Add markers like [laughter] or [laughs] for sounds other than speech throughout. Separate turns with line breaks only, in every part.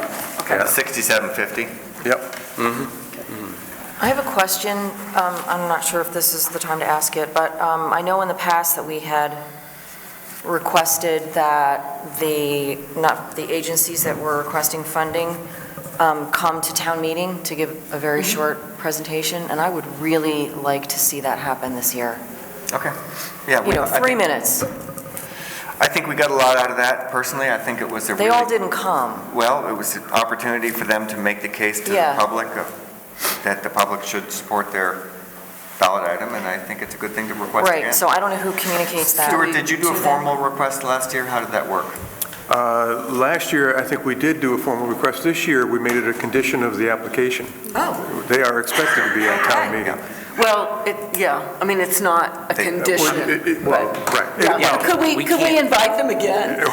Yeah.
At 6750?
Yep.
Mm-hmm.
I have a question. Um, I'm not sure if this is the time to ask it, but um, I know in the past that we had requested that the, not the agencies that were requesting funding um, come to town meeting to give a very
Mm-hmm.
short presentation, and I would really like to see that happen this year.
Okay. Yeah,
You
we-
know,
I
three
think-
minutes.
I think we got a lot out of that personally. I think it was a
They all
really,
didn't come.
well, it was an opportunity for them to make the case to the
Yeah.
public of- that the public should support their ballot item, and I think it's a good thing to request again.
Right, so I don't know who communicates that.
Stuart, did you do a
to them.
formal request last year? How did that work?
Uh, Last year, I think we did do a formal request. This year, we made it a condition of the application.
Oh,
They are expected to be at town
Okay.
meeting. uh,
Well, it, yeah, I mean, it's not a
They- well,
Well,
condition.
it- it- Well,
Yeah,
right.
well, Could we,
we
could we
can't-
invite them again?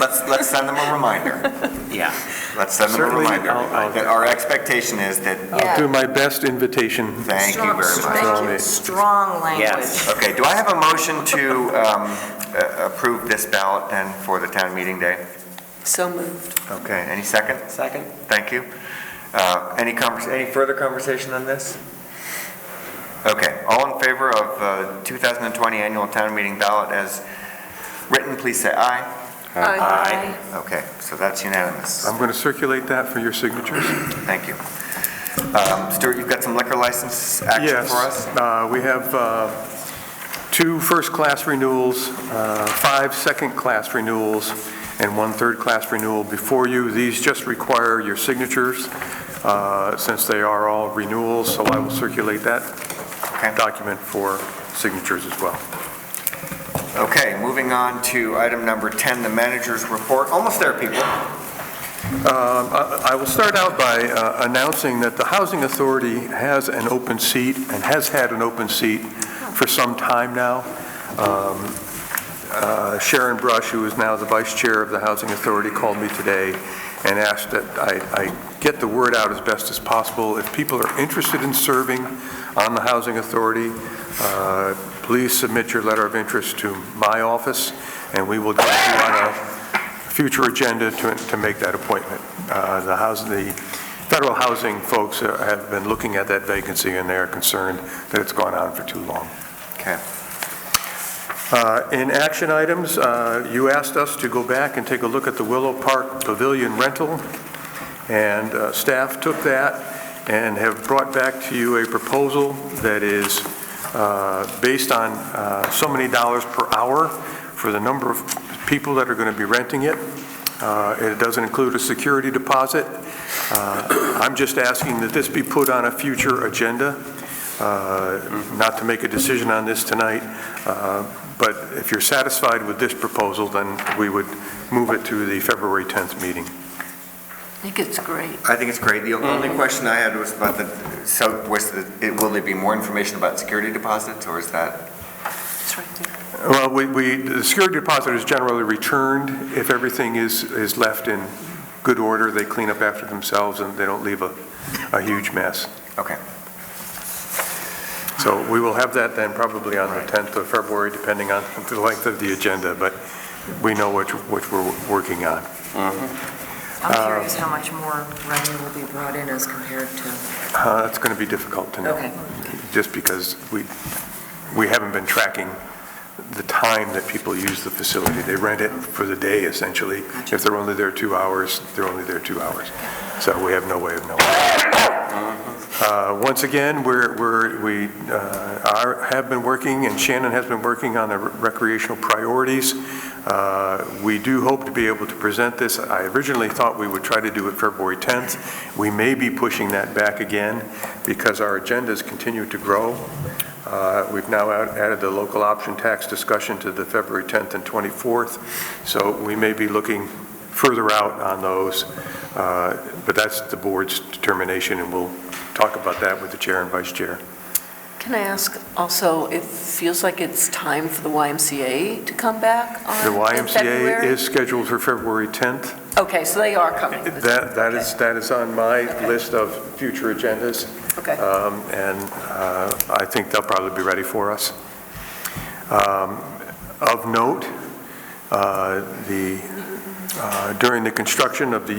Let's, let's send them a reminder.
Yeah.
Let's send them a
Certainly,
reminder.
I'll- I'll-
That our expectation is that,
I'll do my best invitation.
thank you very much.
Strong-
much.
Strong language.
Yes.
Okay, do I have a motion to um, a- approve this ballot then for the town meeting day?
So moved.
Okay, any second?
Second?
Thank you. Uh, Any convers, any further conversation on this? Okay, all in favor of uh, 2020 annual town meeting ballot as written, please say aye.
Aye.
Okay, so that's unanimous.
I'm going to circulate that for your signatures.
Thank you. Um, Stuart, you've got some liquor license action
Yes,
for us?
uh, we have uh, two first-class renewals, uh, five second-class renewals, and one third-class renewal before you. These just require your signatures, uh, since they are all renewals, so I will circulate that
Okay.
document for signatures as well.
Okay, moving on to item number 10, the manager's report. Almost there, people.
Um, I I will start out by uh, announcing that the Housing Authority has an open seat and has had an open seat for some time now. Um, uh, Sharon Brush, who is now the vice chair of the Housing Authority, called me today and asked that I I get the word out as best as possible. If people are interested in serving on the Housing Authority, uh, please submit your letter of interest to my office, and we will get you on a future agenda to, to make that appointment. Uh, The housing, the federal housing folks uh, have been looking at that vacancy, and they're concerned that it's gone on for too long.
Okay.
Uh, In action items, uh, you asked us to go back and take a look at the Willow Park Pavilion rental, and uh, staff took that and have brought back to you a proposal that is uh, based on uh, so many dollars per hour for the number of people that are going to be renting it. Uh, It doesn't include a security deposit. Uh, I'm just asking that this be put on a future agenda, uh, not to make a decision on this tonight, uh, but if you're satisfied with this proposal, then we would move it to the February 10th meeting.
I think it's great.
I think it's great. The only question I had was about the, so was the, it- will there be more information about security deposits, or is that?
It's right there.
Well, we- we, the security deposit is generally returned. If everything is, is left in good order, they clean up after themselves and they don't leave a, a huge mess.
Okay.
So we will have that then probably on the 10th of February, depending on [laughs] the length of the agenda, but we know which, which we're working on.
I'm curious how much more revenue will be brought in as compared to,
Uh, It's going to be difficult to know,
okay.
just because we, we haven't been tracking the time that people use the facility. They rent it for the day essentially. If they're only there two hours, they're only there two hours. So we have no way of knowing. Uh, Once again, we're, we're, we uh, are, have been working, and Shannon has been working on the recreational priorities. Uh, We do hope to be able to present this. I originally thought we would try to do it February 10th. We may be pushing that back again because our agendas continue to grow. Uh, We've now out- added the local option tax discussion to the February 10th and 24th, so we may be looking further out on those. Uh, But that's the board's determination, and we'll talk about that with the chair and vice chair.
Can I ask also, it feels like it's time for the YMCA to come back
The
on, in
YMCA
February?
is scheduled for February 10th.
Okay, so they are coming.
That, that is, that is on my list of future agendas.
Okay.
Um, And uh, I think they'll probably be ready for us. Um, Of note, uh, the, uh, during the construction of the